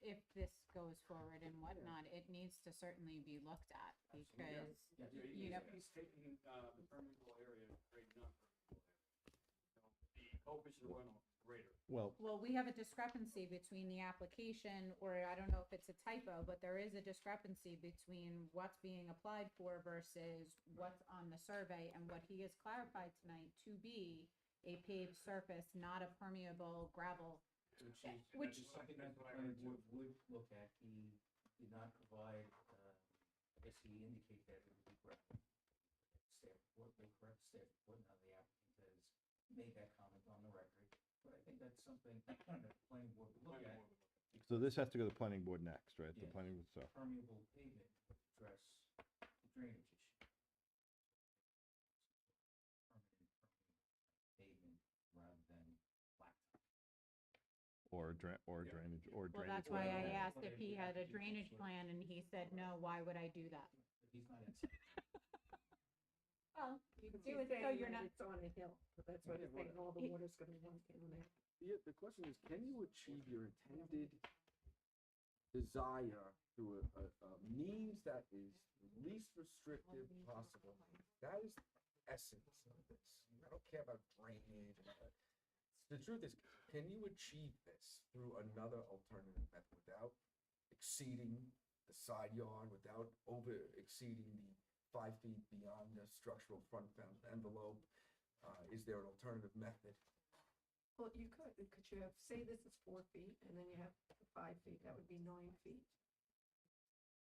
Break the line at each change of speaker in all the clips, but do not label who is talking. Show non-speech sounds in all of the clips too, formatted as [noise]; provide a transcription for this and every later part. if this goes forward and whatnot, it needs to certainly be looked at
Absolutely, yeah.
because
Yeah,
you
he's,
know-
he's taking, uh, the permeable area, and grading up. So The coefficient of runoff greater.
Well,
Well, we have a discrepancy between the application, or I don't know if it's a typo, but there is a discrepancy between what's being applied for versus what's on the survey and what he has clarified tonight to be a paved surface, not a permeable gravel.
Which is.
Which-
It's
that's
something
something
that
that's
the
what I
planning
heard
board
too.
would look at, he did not provide, uh, I guess he indicated that it would be correct. Staff report, the correct staff report, now the applicant has made that comment on the record, but I think that's something that the planning board would look at,
so this has to go to the planning board next, right? The
Yeah.
planning, board so,
permeable pavement would address the drainage issue. Permanent permeable Pavement rather than blacktop.
or dra- or
Yeah.
drainage, or
Well,
drainage.
that's why I
plan.
asked if he had a drainage plan and he said, no, why would I do that?
But he's not inside.
Well, you
But
do
he's
it so
saying
you're
that
not,
It's on a hill, so that's why
Yeah,
they're saying all the
He-
water's gonna run down there.
Yeah, the question is, can you achieve your intended desire through a, a, a means that is least restrictive possible? That is the essence of this. I don't care about drainage. and all that. The truth is, can you achieve this through another alternative method without exceeding the side yard, without over exceeding the five feet beyond the structural front found envelope? Uh, is there an alternative method?
Well, you could, could you have, say this is four feet and then you have the five feet, that would be nine feet.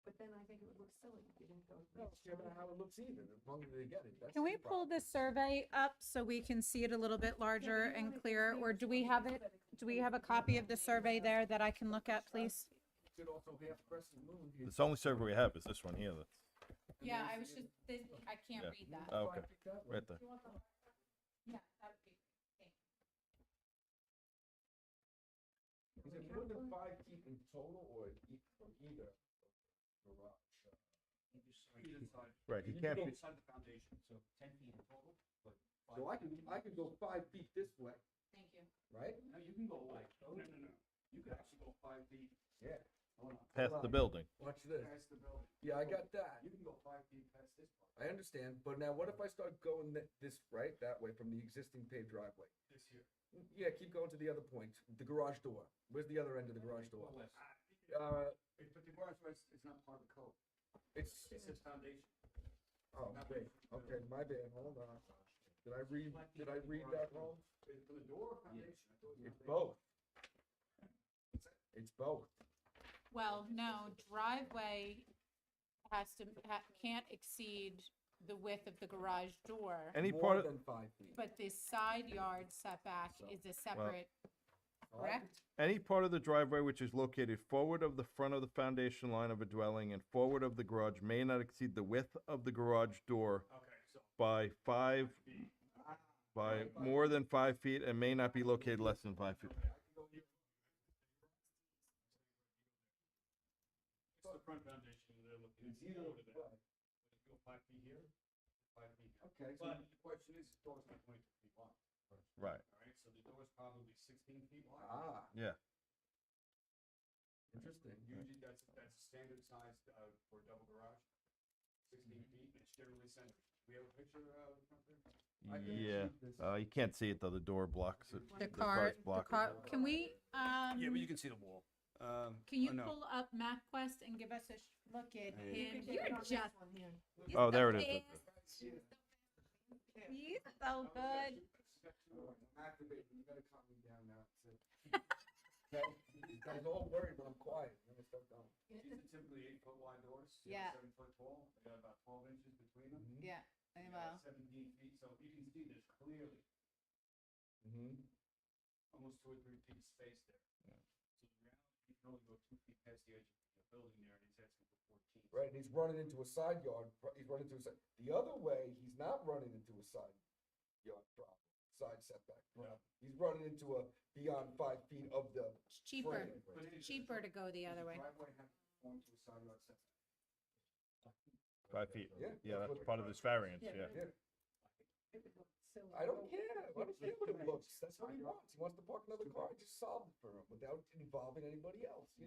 But then I think it would look silly if you didn't go.
No, I don't care about how it looks either, as long as they get it. That's
can we
the
pull
problem.
this survey up so we can see it a little bit larger and clearer? Or do we have it, do we have a copy of the survey there that I can look at, please?
Should also be after Crescent Moon. here.
It's the only server we have is this one here. that's-
Yeah, I was just, this- I can't
Yeah.
read that.
Oh,
Five
okay.
feet that way.
Right there.
Yeah, that would be,
Is it more than five feet in total or e- from either garage?
Either side.
Right, he
You
can't
go
be,
Beside the foundation.
So ten feet in total, but. five
So I can,
feet-
I can go five feet this way,
thank you.
right?
No, you can go like, no, no, no. You could actually go five feet.
Yeah.
Hold on.
Past the building.
Watch this.
Past the building.
Yeah, I got that.
You can go five feet past this part.
I understand, but now what if I start going thi- this, right, that way from the existing paved driveway?
This here.
Yeah, keep going to the other point, the garage door. Where's the other end of the garage door?
Well, west.
Ah,
Uh,
it- But the garage was, it's not part of the code.
it's,
It's a foundation.
oh, wait, okay, my bad, hold on. Did I read, did I read that wrong?
It's For the door foundation. I thought it was
It's
foundation.
both. It's both.
Well, no, driveway has to, ha- can't exceed the width of the garage door,
Any
More
part of,
Than five feet.
but the side yard setback is a separate,
All right?
correct?
any part of the driveway which is located forward of the front of the foundation line of a dwelling and forward of the garage may not exceed the width of the garage door
Okay, so.
by five, by more than five feet and may not be located less than five feet.
Okay, I can go here. It's the front foundation, they're looking.
It's either
forward to that.
way.
Go five feet here, five feet here.
Okay, so
But the question is, the door's not twenty feet wide,
Right,
all right, so the door's probably sixteen feet wide.
ah,
yeah.
interesting.
Usually that's, that's standard size, uh, for a double garage, sixteen
Mm-hmm.
feet, and it's generally centered. We have a picture uh, of the front there?
I can
Yeah,
achieve this.
uh, you can't see it though, the door blocks it.
The
car's
car, the
blocking
car, can we, um,
Yeah, but you can see the wall. Um,
can you
or no.
pull up MapQuest and give us a sh- look at him?
You're
You're just,
just on here.
it. Oh, there it is.
He's he's so good.
I'm activating, you gotta calm me down now. it's, uh, okay? [laughs] You guys all worried when I'm quiet, let me start going.
These are typically eight foot wide doors, they're
Yeah.
seven foot tall, they got about twelve inches between them.
Yeah,
They got Seventeen feet, so you can see there's clearly
Mhm.
almost two or three feet of space there. So the reality, you can only go two feet past the edge of the building there, and he's asking for fourteen.
Right, and he's running into a side yard, pro- he's running into a side, the other way, he's not running into a side yard problem, side setback problem. He's running into a beyond five feet of the
It's cheaper,
frame.
But it is-
cheaper to go the
does
other way.
Driveway have to conform to a side yard setback.
Five feet.
Yeah,
Yeah,
that's
that's
what-
part of this variance,
Yeah.
yeah.
It would look silly.
I don't care. I don't care what it looks. That's what he wants. He wants to park another car. I just solved it for him without involving anybody else.